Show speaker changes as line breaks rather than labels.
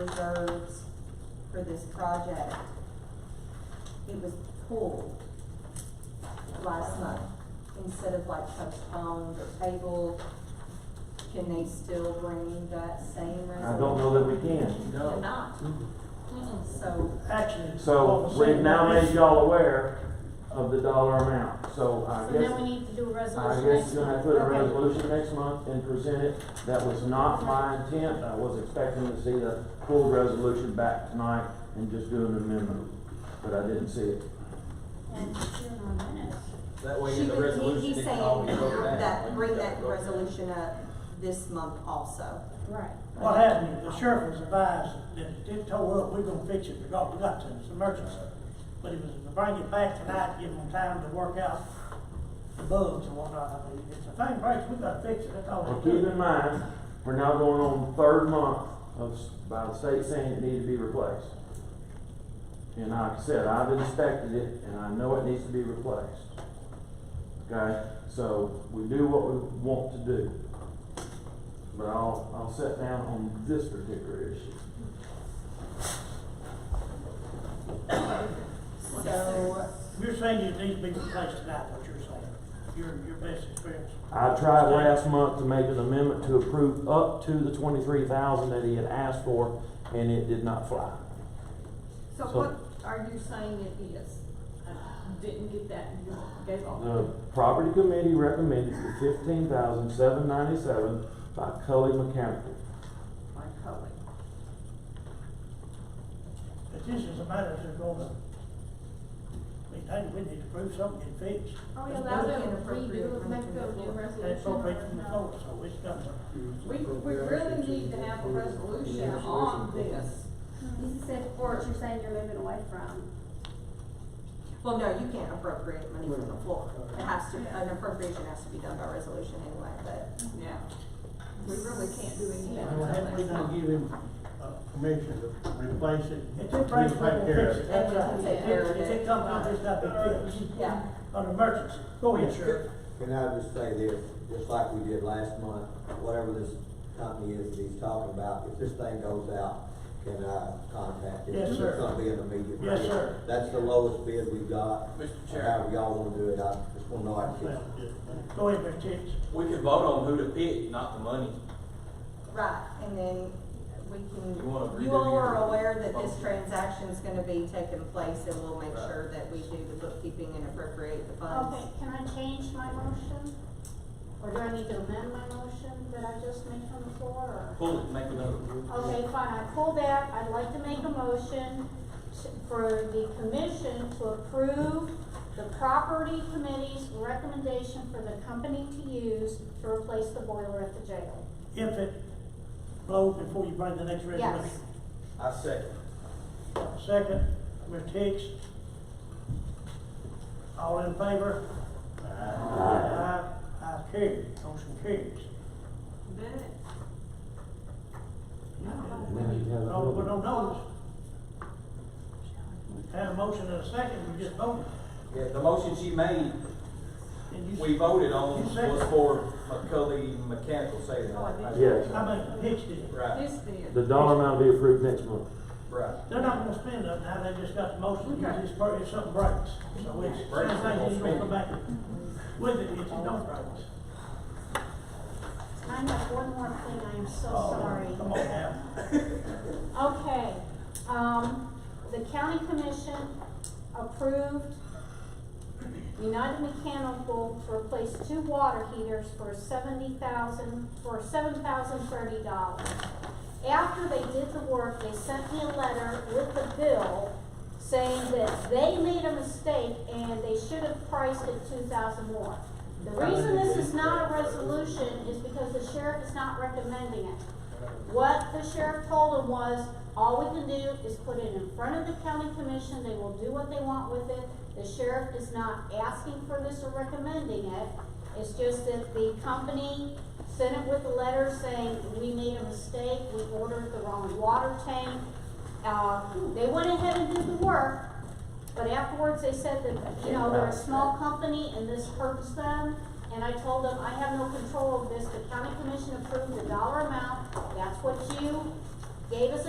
reserves for this project. It was pulled last month, instead of like postponed or tabled. Can they still bring that same resolution?
I don't know that we can.
They're
No.
not. So,
Actually.
So
what we're
we've
saying
now
is-
made y'all aware of the dollar amount, so I
So
guess,
then we need to do a
I
resolution
guess
next
you're gonna
month.
put a
Okay.
resolution next month and present it. That was not my intent, I was expecting to see the full resolution back tonight and just do an amendment, but I didn't see it.
And soon on minutes.
That way
she,
in the
was- he-
resolution,
he's
it can
saying
always go back.
that,
When
bring
you
that
go back.
resolution up this month also.
Right.
Well,
What happened, is the sheriff was advised that if it tore up, we're gonna fix it, because we got to, it's an emergency. But it was to bring it back tonight, give them time to work out the bugs and whatnot, I mean, if the thing breaks, we gotta fix it, that's all
Well,
we
keep
do.
in mind, we're now going on third month of, s- by the state saying it needs to be replaced. And like I said, I've inspected it and I know it needs to be replaced. Okay, so we do what we want to do. But I'll, I'll sit down on this particular issue.
So,
You're saying it needs to be replaced tonight, what you're saying, your, your best experience.
I tried last month to make an amendment to approve up to the twenty-three thousand that he had asked for and it did not fly.
So
So-
what are you saying it is? I didn't get that, you gave
The
off.
property committee recommended the fifteen thousand seven ninety-seven by Cully Mechanical.
My colleague.
But this is a matter that's gonna, I mean, hey, we need to prove something and fix.
Are we
It's
allowed
really
to
inappropriate
redo,
when
make
we
a
do
new
it.
resolution?
That's appropriate from the
or
floor, so it's done.
We, we really need to have a resolution on this.
no?
This is it for what you're saying you're moving away from.
well, no, you can't appropriate money from the floor. It has to, an appropriation has to be done by resolution anyway, but
Yeah. We really can't do anything.
Well, Have we not give him uh, permission to replace it?
If
He'll
it breaks, we're
take
gonna
care
fix it,
of it.
that's right.
And
If
take care of
it- if
it.
it comes out, it's got to be fixed,
yeah.
an emergency. Go ahead, Sheriff.
Can I just say this, just like we did last month, whatever this company is that he's talking about, if this thing goes out, can I contact him?
Yes, sir.
It's gonna be an immediate.
Yes,
bid.
sir.
That's the lowest bid we've got.
Mr.
And
Chair.
However y'all wanna do it, I just wanna know I can. get it.
Go ahead, Mr. Hicks.
We can vote on who to pick, not the money.
Right, and then we
You wanna
can,
redo
you all
your-
are aware that this
Okay.
transaction's gonna be taking place and we'll make
Right.
sure that we do the bookkeeping and appropriate the funds.
Okay, can I change my motion? Or do I need to amend my motion that I just made from the floor, or?
Pull it, make another.
Okay, fine, I pull that, I'd like to make a motion to- for the commission to approve the property committee's recommendation for the company to use to replace the boiler at the jail.
If it blows before you bring the next resolution.
Yes.
I second.
Second, Mr. Hicks. All in favor? Aye. Aye, carried, motion carries.
Minutes.
No, we don't know this. Had a motion and a second, we just voted.
Yeah, the motion she made,
And you-
we voted on
You second.
was for McCully Mechanical, say that.
Oh, I did.
Yes.
I mean, Hicks did it.
Right,
This did.
The dollar amount will be approved next month.
right.
They're not gonna spend up now, they just got the motion,
Okay.
it's, per- it's something breaks, so it's, same
Breaks, they're
thing,
gonna
you gonna
spend
come
it.
back with it if you don't break.
I have one more thing, I am so
Oh,
sorry.
Come on now.
Okay, um, the county commission approved United Mechanical to replace two water heaters for seventy thousand, for seven thousand thirty dollars. After they did the work, they sent me a letter with the bill saying that they made a mistake and they should have priced it two thousand more. The reason this is not a resolution is because the sheriff is not recommending it. What the sheriff told him was, all we can do is put it in front of the county commission, they will do what they want with it. The sheriff is not asking for this or recommending it, it's just that the company sent it with a letter saying, we made a mistake, we ordered the wrong water tank. Uh, they went ahead and did the work, but afterwards they said that, you know, they're a small company and this hurts them. And I told them, I have no control of this, the county commission approved the dollar amount, that's what you gave us